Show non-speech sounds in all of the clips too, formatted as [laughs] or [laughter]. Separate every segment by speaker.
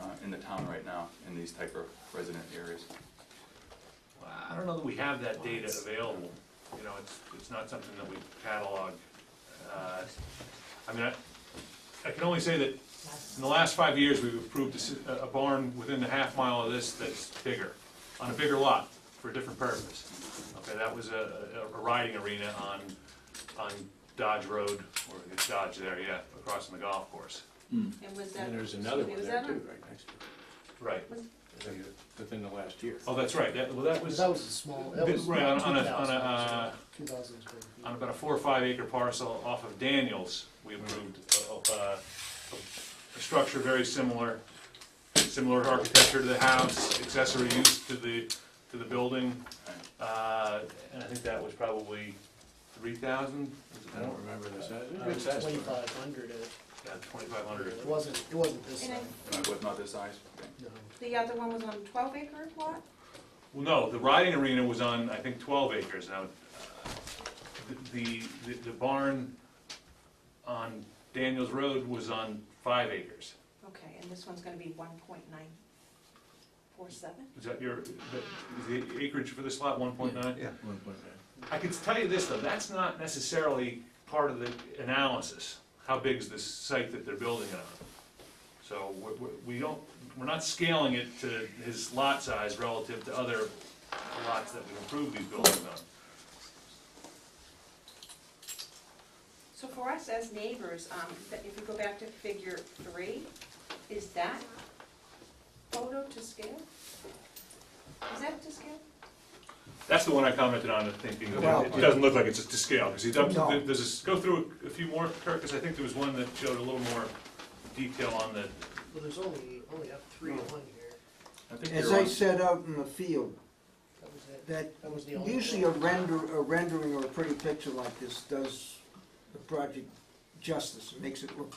Speaker 1: uh, in the town right now, in these type of resident areas.
Speaker 2: I don't know that we have that data available, you know, it's, it's not something that we catalog. Uh, I mean, I, I can only say that in the last five years, we've approved a s- a, barn within the half mile of this that's bigger, on a bigger lot, for a different purpose. Okay, that was a, a- a riding arena on, on Dodge Road, or it's Dodge there, yeah, across from the golf course.
Speaker 3: And was that?
Speaker 4: And there's another one
Speaker 3: was
Speaker 4: there
Speaker 3: that
Speaker 4: too, right next to
Speaker 2: Right,
Speaker 4: it, I think within the last year.
Speaker 2: oh, that's right, that, well, that was,
Speaker 5: Because that was a small, that
Speaker 2: Bit-
Speaker 5: was
Speaker 2: right, on- on a- on a,
Speaker 5: 2,000,
Speaker 2: uh,
Speaker 5: 2,000 square feet.
Speaker 2: on about a four or five acre parcel off of Daniels, we approved a, a, a structure very similar, similar architecture to the house, accessory use to the, to the building. Uh, and I think that was probably three thousand,
Speaker 4: I don't remember the size,
Speaker 2: uh,
Speaker 4: it was a good size. farm.
Speaker 5: Twenty-five hundred, it
Speaker 2: twenty-five hundred.
Speaker 5: wasn't, it wasn't this
Speaker 3: And I-
Speaker 5: size,
Speaker 1: Not- Was not this size? Okay.
Speaker 5: no.
Speaker 3: The other one was on twelve acre lot?
Speaker 2: Well, no, the riding arena was on, I think, twelve acres now. uh, The, the, the barn on Daniels Road was on five acres.
Speaker 3: Okay, and this one's gonna be one point nine four seven?
Speaker 2: Is that your, the- is the acreage for this lot one point nine?
Speaker 4: Yeah, one point nine.
Speaker 2: I can tell you this, though, that's not necessarily part of the analysis, how big is this site that they're building it on? So we're- we're- we don't, we're not scaling it to his lot size relative to other lots that we approve these buildings on.
Speaker 3: So for us as neighbors, um, that- if we go back to figure three, is that photo to scale? Is that to scale?
Speaker 2: That's the one I commented on, thinking that it doesn't look like it's to scale, because he, dumped- there's a, s- go through a few more, Kirk, because I think there was one that showed a little more detail on the,
Speaker 5: Well, there's only, only up three to one here.
Speaker 1: I think
Speaker 6: As
Speaker 1: you're
Speaker 6: I
Speaker 1: on,
Speaker 6: said out in the field,
Speaker 5: That was it.
Speaker 6: that
Speaker 5: That was the only.
Speaker 6: usually a render, a rendering or a pretty picture like this does the project justice, It makes it look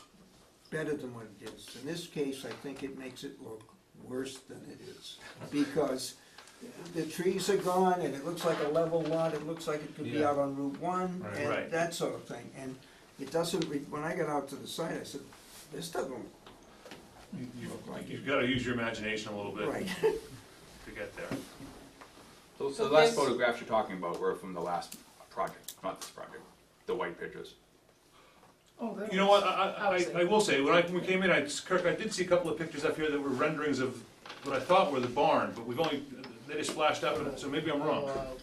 Speaker 6: better than what it is. In this case, I think it makes it look worse than it is, because the trees are gone, and it looks like a level lot, it looks like it could be
Speaker 4: Yeah.
Speaker 6: out on Route One,
Speaker 4: Right.
Speaker 2: Right.
Speaker 6: and that sort of thing, and it doesn't, re- when I got out to the site, I said, this doesn't look
Speaker 2: you- you've, you've gotta use your imagination a little bit
Speaker 6: right.
Speaker 2: to get there.
Speaker 1: those- the
Speaker 3: So
Speaker 1: last
Speaker 3: this-
Speaker 1: photographs you're talking about were from the last project, not this project, the white pictures.
Speaker 2: You know what, I, I- I, I will say, when I, when we came in, I, Kirk, I did see a couple of pictures up here that were renderings of what I thought were the barn, but we've only, they just flashed out, so maybe I'm
Speaker 5: uh,
Speaker 2: wrong.
Speaker 1: I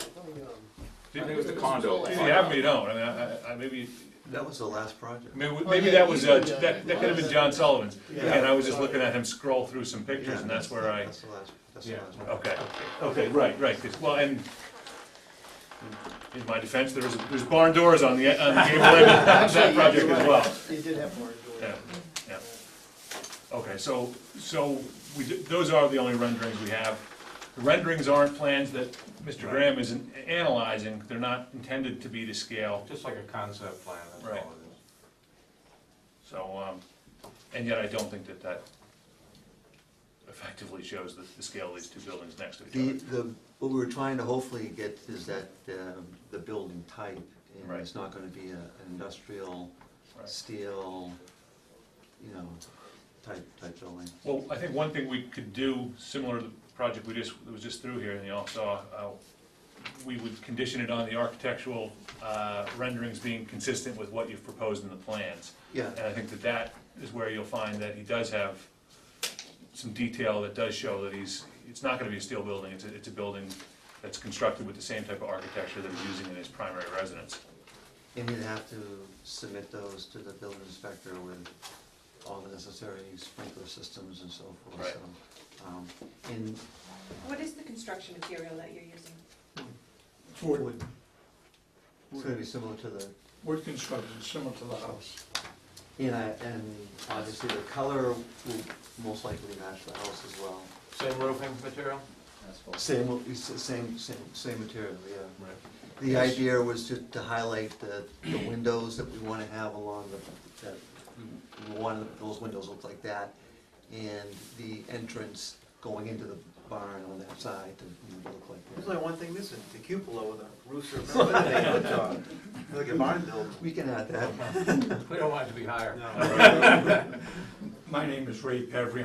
Speaker 1: think it was the condo.
Speaker 2: If you have me, don't, I mean, I- I, I, maybe,
Speaker 7: That was the last project.
Speaker 2: maybe,
Speaker 5: yeah,
Speaker 2: maybe that was, uh,
Speaker 5: you did, uh,
Speaker 2: that, that could have been John Sullivan's.
Speaker 5: Yeah.
Speaker 2: And I was just looking at him scroll through some
Speaker 7: Yeah,
Speaker 2: pictures, and that's where I,
Speaker 7: That's the last, that's the
Speaker 4: Yeah.
Speaker 7: last one.
Speaker 2: okay, okay, right, right, 'cause- well, and in my defense, there was, there's barn doors on the, on the gable end of that project as well.
Speaker 5: You did have more.
Speaker 2: Yeah, yeah. Okay, so, so we, d- those are the only renderings we have. The renderings aren't plans that Mr. Graham is an- analyzing, they're not intended to be to scale,
Speaker 4: Just like a concept plan, that's all
Speaker 2: Right.
Speaker 4: it is.
Speaker 2: so, um, and yet I don't think that that effectively shows the, the scale of these two buildings next to
Speaker 7: The,
Speaker 2: each other.
Speaker 7: the, what we were trying to hopefully get is that, um, the building type, and
Speaker 2: Right.
Speaker 7: it's not gonna be a an industrial,
Speaker 2: Right.
Speaker 7: steel, you know, type, type building.
Speaker 2: Well, I think one thing we could do, similar to the project we just, that was just through here, and you all saw, uh, we would condition it on the architectural, uh, renderings being consistent with what you've proposed in the plans.
Speaker 7: Yeah,
Speaker 2: And I think that that is where you'll find that he does have some detail that does show that he's, it's not gonna be a steel building, it's a, it's a building that's constructed with the same type of architecture that he's using in his primary residence.
Speaker 7: and you'd have to submit those to the building inspector with all the necessary sprinkler systems and so forth, so. um, And
Speaker 3: What is the construction material that you're using?
Speaker 8: Wood,
Speaker 7: would- it's gonna be similar to the
Speaker 8: wood construction, similar to the house.
Speaker 7: And I, and obviously the color will most likely match the house as well.
Speaker 4: Same roofing material?
Speaker 7: Same, will- it's the same, same, same material, yeah.
Speaker 4: Right.
Speaker 7: The idea was to, to highlight the, the windows that we wanna have along the, that, we wanted those windows look like that. And the entrance going into the barn on that side to you know, look like
Speaker 9: There's
Speaker 7: that.
Speaker 9: only one thing missing, the cupola with a
Speaker 7: [laughs]
Speaker 9: rooster. Remember that they put on? uh, Like a barn building.
Speaker 7: We can add that.
Speaker 4: We don't want it to be higher.
Speaker 9: No.
Speaker 8: My name is Ray Pevry,